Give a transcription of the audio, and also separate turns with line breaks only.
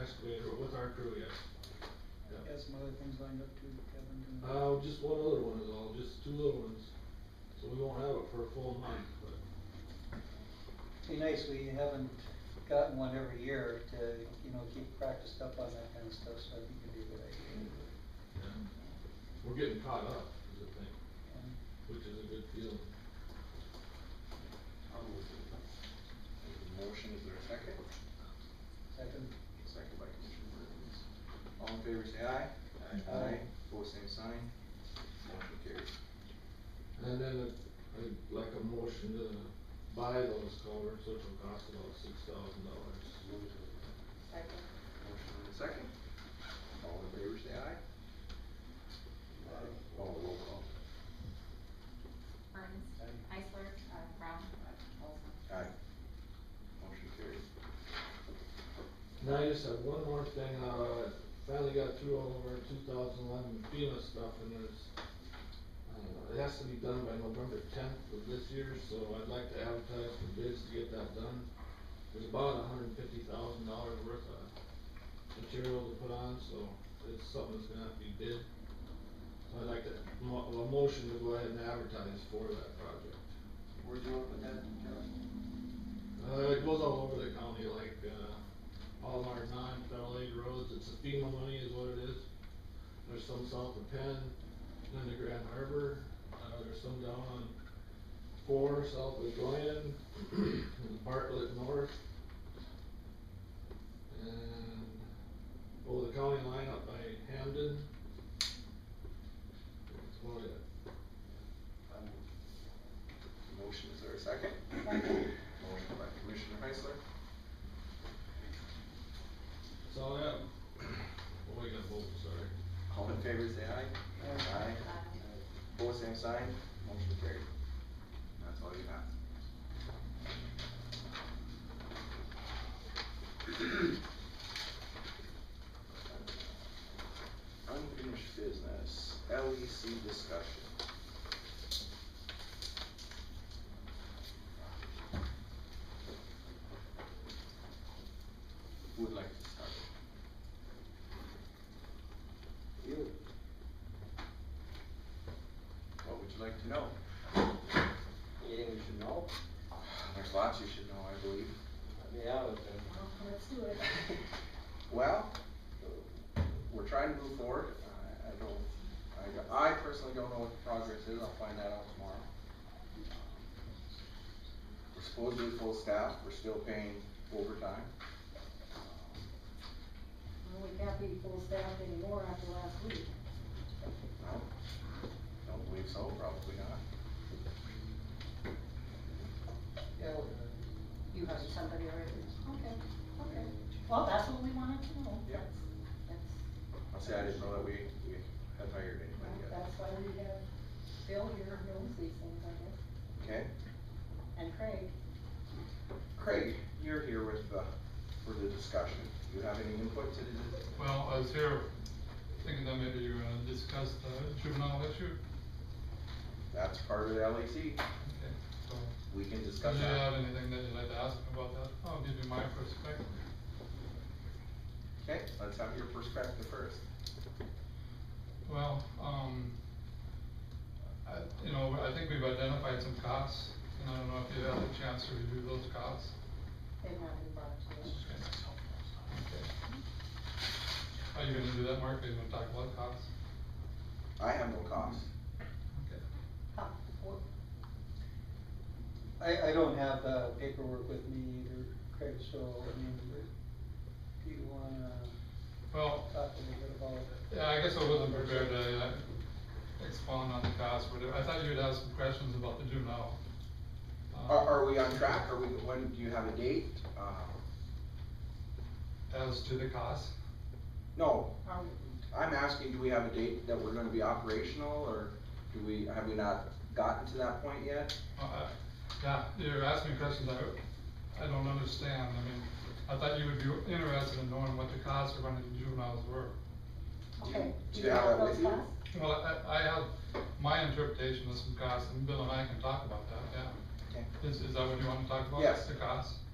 excavator, with our crew, yes.
I've
Yeah.
got some other things lined up too, Kevin can.
Uh, just one other one is all, just two little ones, so we won't have it for a full month, but.
Be nice, we haven't gotten one every year to, you know, keep practiced up on that kind of stuff, so I think it'd be a good idea.
yeah. um, We're getting caught up, is the thing,
And
which is a good feeling.
I'll move it. Motion, is there a second?
Second,
Second by Commissioner Burns. All in favor, say aye.
Aye.
Pose same sign. Motion carries.
And then a- I'd like a motion to buy those culverts, which will cost about six thousand dollars.
Second.
Motion and a second. All in favor, say aye.
Aye.
Oh, roll call.
Burns.
Aye.
Heisler. Brown. Olson.
Aye. Motion carries.
And I just have one more thing, uh, finally got through all of our two thousand eleven FEMA stuff and there's, uh, it has to be done by November tenth of this year, so I'd like to advertise for bids to get that done. There's about hundred and fifty thousand dollars worth of material to put on, so it's something that's gonna have to be bid. So I'd like to, mo- a motion to go ahead and advertise for that project.
Where'd you open that, Kevin?
Uh, it goes all over the county, like, uh, all of our non-federal aid roads, it's a FEMA money is what it is. There's some south of Penn, then to Grand Harbor, uh, there's some down on four, south of Glen, and Bartlett North. And, oh, the county line up by Hamden. That's about it.
I'll move. Motion, is there a second? Motion by Commissioner Heisler.
So, yeah, oh, we got both, sorry.
All in favor, say aye.
Aye.
Uh,
Pose same sign, motion carried. That's all you have. Unfinished business, LEC discussion. Who would like to start? You. What would you like to know?
Anything we should know?
There's lots you should know, I believe.
Yeah, but then,
Well, let's do it.
Well, we're trying to move forward. I, I don't, I, I personally don't know what the progress is. I'll find that out tomorrow. We're supposedly full staff. We're still paying overtime.
Well, we can't be full staff anymore after last week.
No, don't believe so, probably not.
yeah, we're good.
You heard somebody already. Okay, okay. Well, that's what we wanted to know.
Yeah.
That's,
I'll say I didn't know that we, we had hired anybody yet.
well, that's why we have Bill here who knows these things, I guess,
Okay.
and Craig.
Craig, you're here with, uh, for the discussion. Do you have any input to the,
Well, I was here thinking that maybe you were gonna discuss the juvenile issue.
that's part of the LEC.
Okay, so,
We can
Did
discuss
you have
that.
anything that you'd like to ask me about that? I'll give you my perspective.
Okay, let's have your perspective first.
Well, um, I, you know, I think we've identified some costs, and I don't know if you had a chance to review those costs.
They might be brought to us.
Are you gonna do that, Mark? Are you gonna talk about costs?
I have no cost.
Okay.
Huh, what-
I, I don't have the paperwork with me either, Craig, so, I mean, do you wanna
Oh.
Well,
talk
Uh,
a little bit about it?
Yeah, I guess I wasn't prepared to uh, expound on the cost, but I thought you'd ask some questions about the juvenile. uh,
Are, are we on track? Are we, when, do you have a date? Uh,
As to the cost,
No,
are we-
I'm asking, do we have a date that we're gonna be operational, or do we, have we not gotten to that point yet?
Uh, I- yeah, you're asking questions I, I don't understand, I mean, I thought you would be interested in knowing what the costs of running juveniles were.
Okay.
Do you have that
those
with you?
costs?
Well, I, I have my interpretation of some costs, and Bill and I can talk about that, yeah.
Okay.
Is, is that what you wanna talk about?
Yes.
The costs?